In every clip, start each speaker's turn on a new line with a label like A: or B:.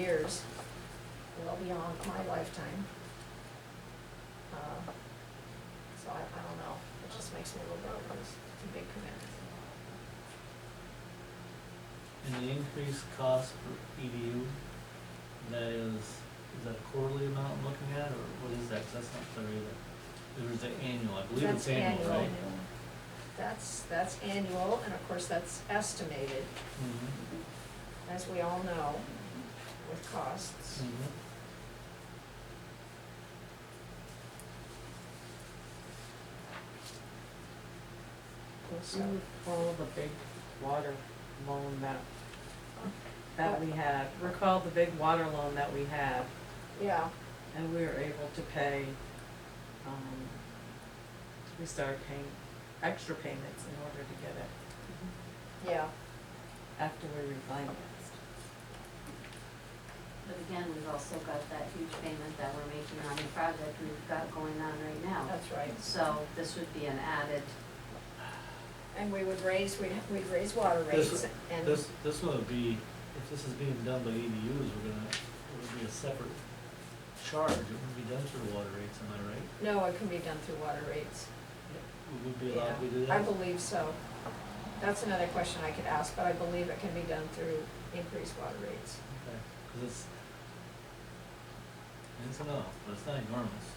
A: years, well beyond my lifetime. Uh, So I, I don't know, it just makes me a little nervous, it's a big commitment.
B: And the increased cost per EDU, that is, is that a quarterly amount I'm looking at, or what is that, 'Cause that's not clear either. There is an annual, I believe it's
A: That's
B: annual, right?
A: That's, that's annual, and of course, that's estimated, Mm-hmm.
B: Mhm,
A: as we all know, with costs.
B: mhm. Mm.
A: So,
C: You recall the big water loan that, that we had, recall the big water loan that we had,
A: Yeah,
C: and we were able to pay, um, we started paying extra payments in order to get it
A: yeah,
C: after we refinanced.
D: But again, we've also got that huge payment that we're making on the project we've got going on right now.
A: that's right.
D: So this would be an added,
A: And we would raise, we'd, we'd raise water
B: This-
A: rates and,
B: This, this one would be, if this is being done by EDUs, we're gonna, it would be a separate charge, it wouldn't be done through water rates, am I right?
A: no, it can be done through water rates.
B: We would be allowed to do
A: I
B: that?
A: believe so. That's another question I could ask, but I believe it can be done through increased water rates.
B: Okay, cause it's, it's enough, but it's not enormous.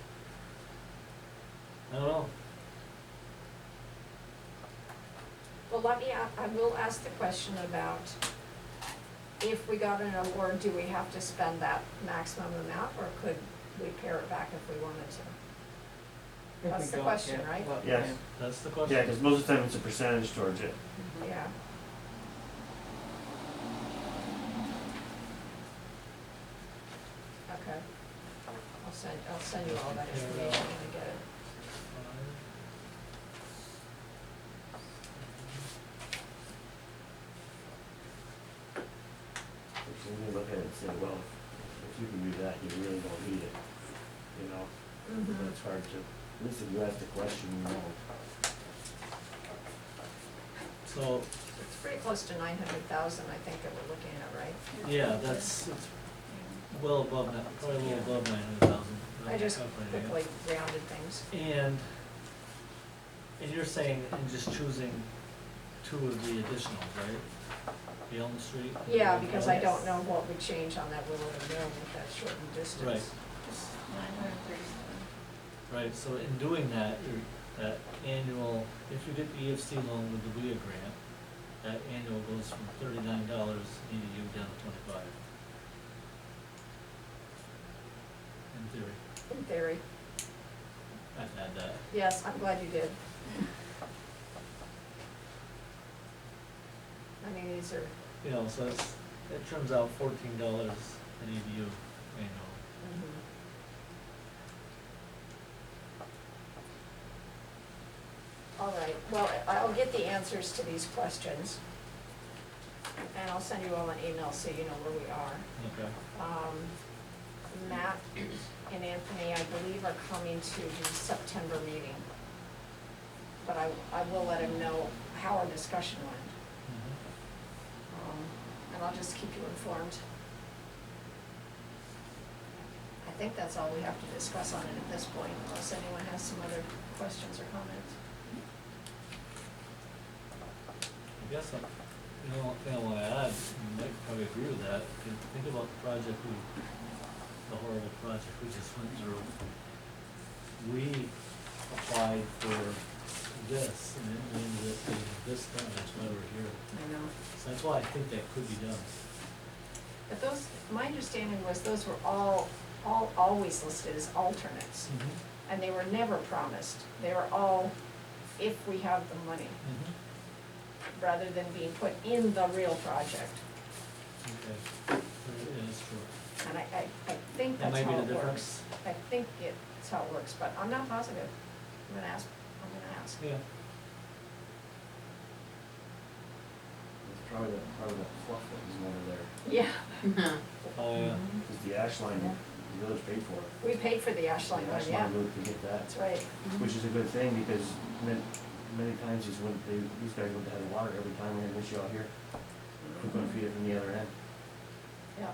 B: I don't know,
A: Well, let me, a- I will ask the question about if we got an award, do we have to spend that maximum amount or could we pare it back if we wanted to? That's the question, right?
E: Yes.
B: that's the question.
E: Yeah, because most of the time it's a percentage towards it.
A: Yeah. Okay. I'll send, I'll send you all that information when I get it.
E: So when you look at it and say, well, if you can do that, you really don't need it, you know?
A: Mm-hmm.
E: But it's hard to, at least if you ask the question, you know.
B: So,
A: It's pretty close to nine hundred thousand, I think, that we're looking at, right?
B: yeah, that's, it's well above that, probably a little above nine hundred thousand.
A: I just quickly rounded things.
B: And, and you're saying, and just choosing two of the additionals, right? The Elm Street? and the
A: Yeah, because I
B: Elm.
A: don't know what would change on that Willard and Mill with that shortened distance.
B: Right. Right, so in doing that, your, that annual, if you get the EFC loan with the WIA grant, that annual goes from thirty-nine dollars EDU down to twenty-five. In theory,
A: In theory,
B: I've had that.
A: yes, I'm glad you did. I mean, these are,
B: You know, so it's, it turns out fourteen dollars an EDU annual.
A: mhm. Mm-hmm. All right, well, I- I'll get the answers to these questions. And I'll send you all an email so you know where we are.
B: Okay.
A: Um, Matt and Anthony, I believe, are coming to the September meeting. But I, I will let him know how our discussion went,
B: Mhm.
A: um, and I'll just keep you informed. I think that's all we have to discuss on it at this point, unless anyone has some other questions or comments.
B: I guess, I'm- you know, kind of want to add, you might probably agree with that, if you think about the project we, the horrible project we just went through. We applied for this, and it ended up being this done, that's why we're here.
A: I know.
B: So that's why I think that could be done.
A: But those, my understanding was those were all, all, always listed as alternates, and they were never promised. They were all, if we have the money.
B: Mm-hmm.
A: rather than being put in the real project.
B: Okay, it is true.
A: And I, I, I think
B: That
A: that's
B: might
A: how
B: be
A: it
B: the
A: works.
B: difference.
A: I think it's how it works, but I'm not positive. I'm gonna ask, I'm gonna ask.
B: Yeah.
E: It's probably that, probably that fluff that was over there,
A: Yeah,
B: Oh, yeah.
E: because the ash line, the village paid for it.
A: we paid for the ash line
E: The
A: one,
E: ash
A: yeah, Mm-hmm.
E: line loop, we get that,
A: that's right.
E: which is a good thing, because many, many times these wouldn't, they, these guys wouldn't have the water every time we had an issue out here. We're gonna feed it from the other end.
A: Yeah,